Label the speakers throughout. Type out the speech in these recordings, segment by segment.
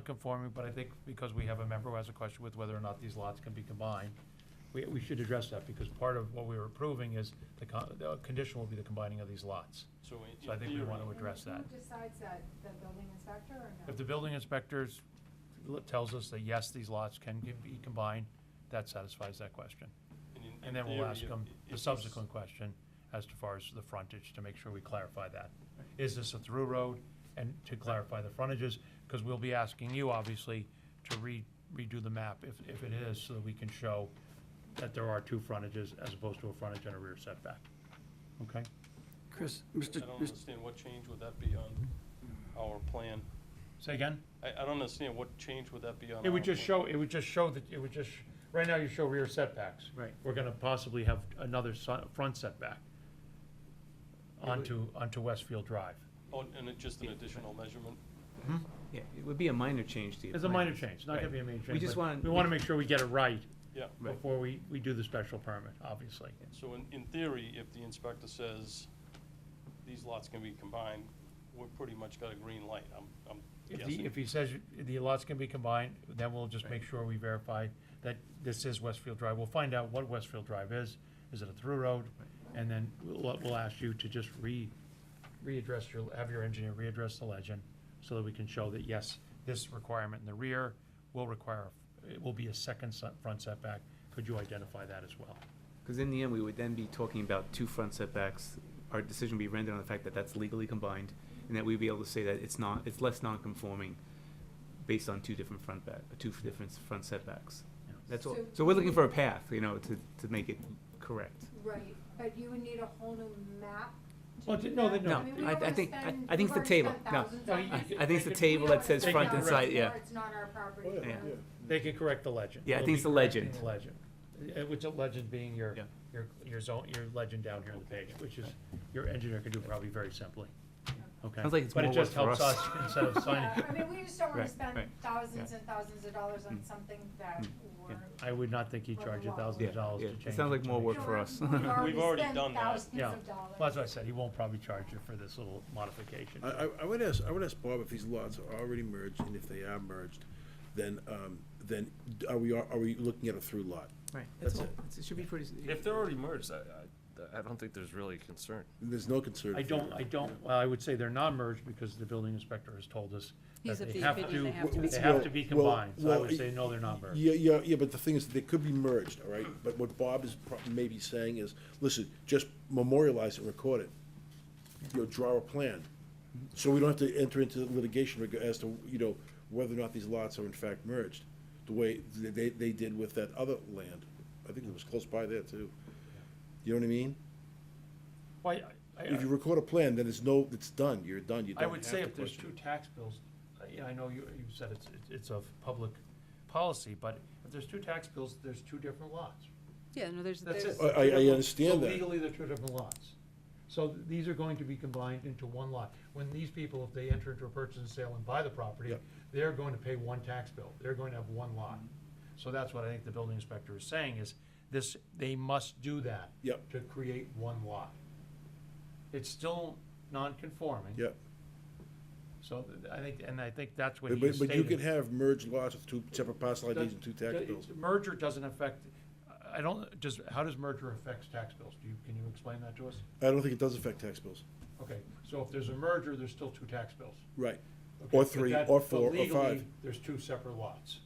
Speaker 1: non-conforming, but I think because we have a member who has a question with whether or not these lots can be combined, we, we should address that, because part of what we were approving is the con, the condition will be the combining of these lots.
Speaker 2: So in-
Speaker 1: So I
Speaker 2: in
Speaker 1: think we
Speaker 2: theory-
Speaker 1: want to address that.
Speaker 3: And who decides that, the building inspector or no?
Speaker 1: If the building inspectors l- tells us that yes, these lots can be combined, that satisfies that question.
Speaker 2: in- in
Speaker 1: And then we'll
Speaker 2: theory,
Speaker 1: ask
Speaker 2: if-
Speaker 1: them
Speaker 2: if
Speaker 1: the
Speaker 2: this-
Speaker 1: subsequent question as to far as the frontage, to make sure we clarify that. Is this a through road? And to clarify the frontages, because we'll be asking you, obviously, to re- redo the map if, if it is, so that we can show that there are two frontages as opposed to a frontage and a rear setback. Okay?
Speaker 4: Chris,
Speaker 2: I
Speaker 4: Mr.
Speaker 2: don't
Speaker 4: Mr.
Speaker 2: understand what change would that be on our plan?
Speaker 1: Say again?
Speaker 2: I, I don't understand what change would that be on our.
Speaker 1: It would just
Speaker 2: plan?
Speaker 1: show, it would just show that, it would just, right now you show rear setbacks.
Speaker 4: Right.
Speaker 1: We're gonna possibly have another si- front setback
Speaker 4: would-
Speaker 1: onto, onto Westfield Drive.
Speaker 2: Oh, and it just an additional measurement?
Speaker 4: Yeah, it would be a minor change to your
Speaker 1: It's a minor
Speaker 4: plans.
Speaker 1: change, not gonna
Speaker 4: Right.
Speaker 1: be a major change.
Speaker 4: We just
Speaker 1: but
Speaker 4: want.
Speaker 1: We wanna make sure we get it right
Speaker 2: Yeah.
Speaker 4: Right.
Speaker 1: before we, we do the special permit, obviously.
Speaker 2: So in, in theory, if the inspector says these lots can be combined, we're pretty much got a green light, I'm, I'm
Speaker 1: If
Speaker 2: guessing.
Speaker 1: he, if he says the lots can be combined, then we'll just make
Speaker 4: Right.
Speaker 1: sure we verify that this is Westfield Drive. We'll find out what Westfield Drive is. Is it a through road? And then we'll, we'll ask you to just re, readdress your, have your engineer readdress the legend so that we can show that, yes, this requirement in the rear will require, it will be a second se- front setback. Could you identify that as well?
Speaker 4: Because in the end, we would then be talking about two front setbacks. Our decision would be rendered on the fact that that's legally combined, and that we'd be able to say that it's not, it's less non-conforming based on two different front back, two different front setbacks.
Speaker 1: Yeah.
Speaker 4: That's all.
Speaker 3: So-
Speaker 4: So we're looking for a path, you know, to, to make it correct.
Speaker 3: Right, but you would need a whole new map
Speaker 1: Well,
Speaker 3: to do
Speaker 1: no,
Speaker 3: that?
Speaker 1: no,
Speaker 3: I mean, we
Speaker 4: I- I
Speaker 3: already
Speaker 4: think- I-
Speaker 3: spend-
Speaker 4: I think
Speaker 3: we've
Speaker 4: it's the
Speaker 3: already spent
Speaker 4: table. No,
Speaker 3: thousands
Speaker 1: no,
Speaker 3: on
Speaker 1: he-
Speaker 3: this.
Speaker 1: he-
Speaker 4: I think it's
Speaker 1: They
Speaker 4: the
Speaker 1: could-
Speaker 4: table that says
Speaker 1: They
Speaker 4: front
Speaker 1: could
Speaker 4: and
Speaker 1: correct-
Speaker 4: side, yeah.
Speaker 3: It's not our
Speaker 1: Oh,
Speaker 3: property.
Speaker 4: yeah,
Speaker 3: you know?
Speaker 4: yeah.
Speaker 1: They can correct the legend.
Speaker 4: Yeah, I
Speaker 1: We'll be
Speaker 4: think it's the
Speaker 1: correcting
Speaker 4: legend.
Speaker 1: the legend, Uh, which the legend being your,
Speaker 4: Yeah.
Speaker 1: your, your zone, your legend down here on the page, which is, your engineer could do probably very simply, okay?
Speaker 4: Sounds like it's more
Speaker 1: But it just
Speaker 4: work
Speaker 1: helps
Speaker 4: for
Speaker 1: us
Speaker 4: us.
Speaker 1: instead of
Speaker 3: Yeah,
Speaker 1: signing.
Speaker 3: I mean, we just don't wanna
Speaker 4: Right,
Speaker 3: spend
Speaker 4: right.
Speaker 3: thousands
Speaker 4: Yeah.
Speaker 3: and thousands of dollars on
Speaker 4: Mm.
Speaker 3: something that
Speaker 4: Mm.
Speaker 3: we're.
Speaker 1: I would not think he
Speaker 3: Well,
Speaker 1: charged a
Speaker 3: well.
Speaker 1: thousand
Speaker 4: Yeah,
Speaker 1: dollars to
Speaker 4: yeah.
Speaker 1: change.
Speaker 4: It sounds
Speaker 1: it
Speaker 4: like
Speaker 1: to
Speaker 4: more
Speaker 1: me.
Speaker 4: work
Speaker 3: You know,
Speaker 4: for us.
Speaker 2: We've already
Speaker 3: spent
Speaker 2: done that.
Speaker 3: Thousands
Speaker 1: Yeah,
Speaker 3: of dollars.
Speaker 1: well, as I said, he won't probably charge you for this little modification.
Speaker 5: I, I- I would ask, I would ask Bob if these lots are already merged, and if they are merged, then, um, then d- are we, are we looking at a through lot?
Speaker 4: Right, that's
Speaker 5: That's
Speaker 4: all.
Speaker 5: it.
Speaker 4: It's- It should be pretty. s-
Speaker 6: If they're already merged, I, I, I don't think there's really a concern.
Speaker 5: There's no concern.
Speaker 1: I don't, I don't, well, I would say they're not merged because the building inspector has told us that
Speaker 7: He's of
Speaker 1: they
Speaker 7: the
Speaker 1: have
Speaker 7: opinion they have
Speaker 1: to,
Speaker 7: to be
Speaker 1: they have to be
Speaker 5: Well, well,
Speaker 1: combined, so I would
Speaker 5: well,
Speaker 1: say, no, they're not merged.
Speaker 5: Yeah, yeah, yeah, but the thing is, they could be merged, all right? But what Bob is pro- maybe saying is, listen, just memorialize and record it. You know, draw a plan. So we don't have to enter into litigation reg- as to, you know, whether or not these lots are in fact merged, the way th- they, they did with that other land. I think it was close by there too. You know what I mean?
Speaker 1: Why, I- I-
Speaker 5: If you record a plan, then it's no, it's done, you're done, you don't
Speaker 1: I
Speaker 5: have
Speaker 1: would say
Speaker 5: to
Speaker 1: if there's two
Speaker 5: question it.
Speaker 1: tax bills, uh, yeah, I know you, you said it's, it's- it's of public policy, but if there's two tax bills, there's two different lots.
Speaker 7: Yeah, no, there's,
Speaker 1: That's it.
Speaker 7: there's,
Speaker 5: I- I- I
Speaker 1: They're-
Speaker 5: understand
Speaker 1: so
Speaker 5: that.
Speaker 1: Legally, they're two different lots. So th- these are going to be combined into one lot. When these people, if they enter into a purchase and sale and buy the property,
Speaker 5: Yep.
Speaker 1: they're going to pay one tax bill. They're going to have one lot.
Speaker 5: Mm-hmm.
Speaker 1: So that's what I think the building inspector is saying is this, they must do that.
Speaker 5: Yep.
Speaker 1: To create one lot. It's still non-conforming.
Speaker 5: Yeah,
Speaker 1: So th- I think, and I think that's what
Speaker 5: but,
Speaker 1: he was
Speaker 5: but but
Speaker 1: stating.
Speaker 5: you can have merged lots with two separate parcel IDs and two
Speaker 1: Does-
Speaker 5: tax
Speaker 1: does-
Speaker 5: bills.
Speaker 1: Merger doesn't affect, I don't, does, how does merger affect tax bills? Do you, can you explain that to us?
Speaker 5: I don't think it does affect tax bills.
Speaker 1: Okay, so if there's a merger, there's still two tax bills.
Speaker 5: Right.
Speaker 1: Okay,
Speaker 5: Or
Speaker 1: but
Speaker 5: three,
Speaker 1: that-
Speaker 5: or
Speaker 1: but
Speaker 5: four, or
Speaker 1: legally,
Speaker 5: five.
Speaker 1: There's two separate lots,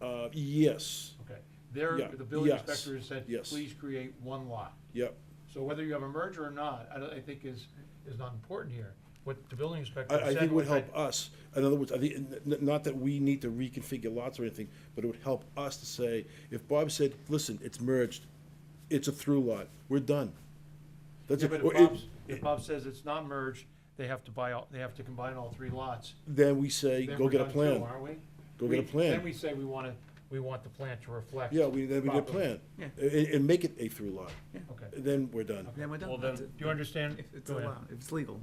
Speaker 5: Uh, yes,
Speaker 1: okay. There,
Speaker 5: Yeah,
Speaker 1: the building
Speaker 5: yes,
Speaker 1: inspector has said,
Speaker 5: yes.
Speaker 1: please create one lot.
Speaker 5: yep.
Speaker 1: So whether you have a merger or not, I don't, I think is, is not important here. What the building inspector
Speaker 5: I,
Speaker 1: said.
Speaker 5: I think it would
Speaker 1: was that-
Speaker 5: help us, in other words, I think, n- n- not that we need to reconfigure lots or anything, but it would help us to say, if Bob said, listen, it's merged, it's a through lot, we're done. That's
Speaker 1: Yeah,
Speaker 5: it.
Speaker 1: but
Speaker 5: Or
Speaker 1: if
Speaker 5: it-
Speaker 1: Bob's, if Bob says it's not merged, they have to buy all, they have to combine all three lots.
Speaker 5: Then we say,
Speaker 1: then
Speaker 5: go
Speaker 1: we're
Speaker 5: get a
Speaker 1: done too,
Speaker 5: plan.
Speaker 1: Aren't we?
Speaker 5: Go get a
Speaker 1: We-
Speaker 5: plan.
Speaker 1: Then we say we wanna, we want the plan to reflect.
Speaker 5: Yeah, we, then we get a
Speaker 1: properly.
Speaker 5: plan.
Speaker 4: Yeah.
Speaker 5: And, and make it a through lot.
Speaker 1: Okay.
Speaker 5: Then we're done.
Speaker 4: Then we're done.
Speaker 6: Well, then,
Speaker 4: That's it.
Speaker 1: Do you understand?
Speaker 4: If it's
Speaker 1: Go ahead.
Speaker 4: allowed, if it's legal,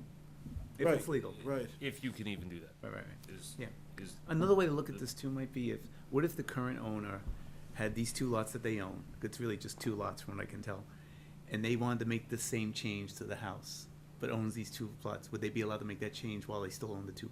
Speaker 4: if
Speaker 5: Right,
Speaker 4: it's legal.
Speaker 5: Right.
Speaker 6: If you can even do that,
Speaker 4: Right, right, right.
Speaker 6: is,
Speaker 4: Yeah.
Speaker 6: is.
Speaker 4: Another way to look at this too might be if, what if the current owner had these two lots that they own, it's really just two lots from what I can tell, and they wanted to make the same change to the house, but but owns these two plots, would they be allowed to make that change while they still own the two plots?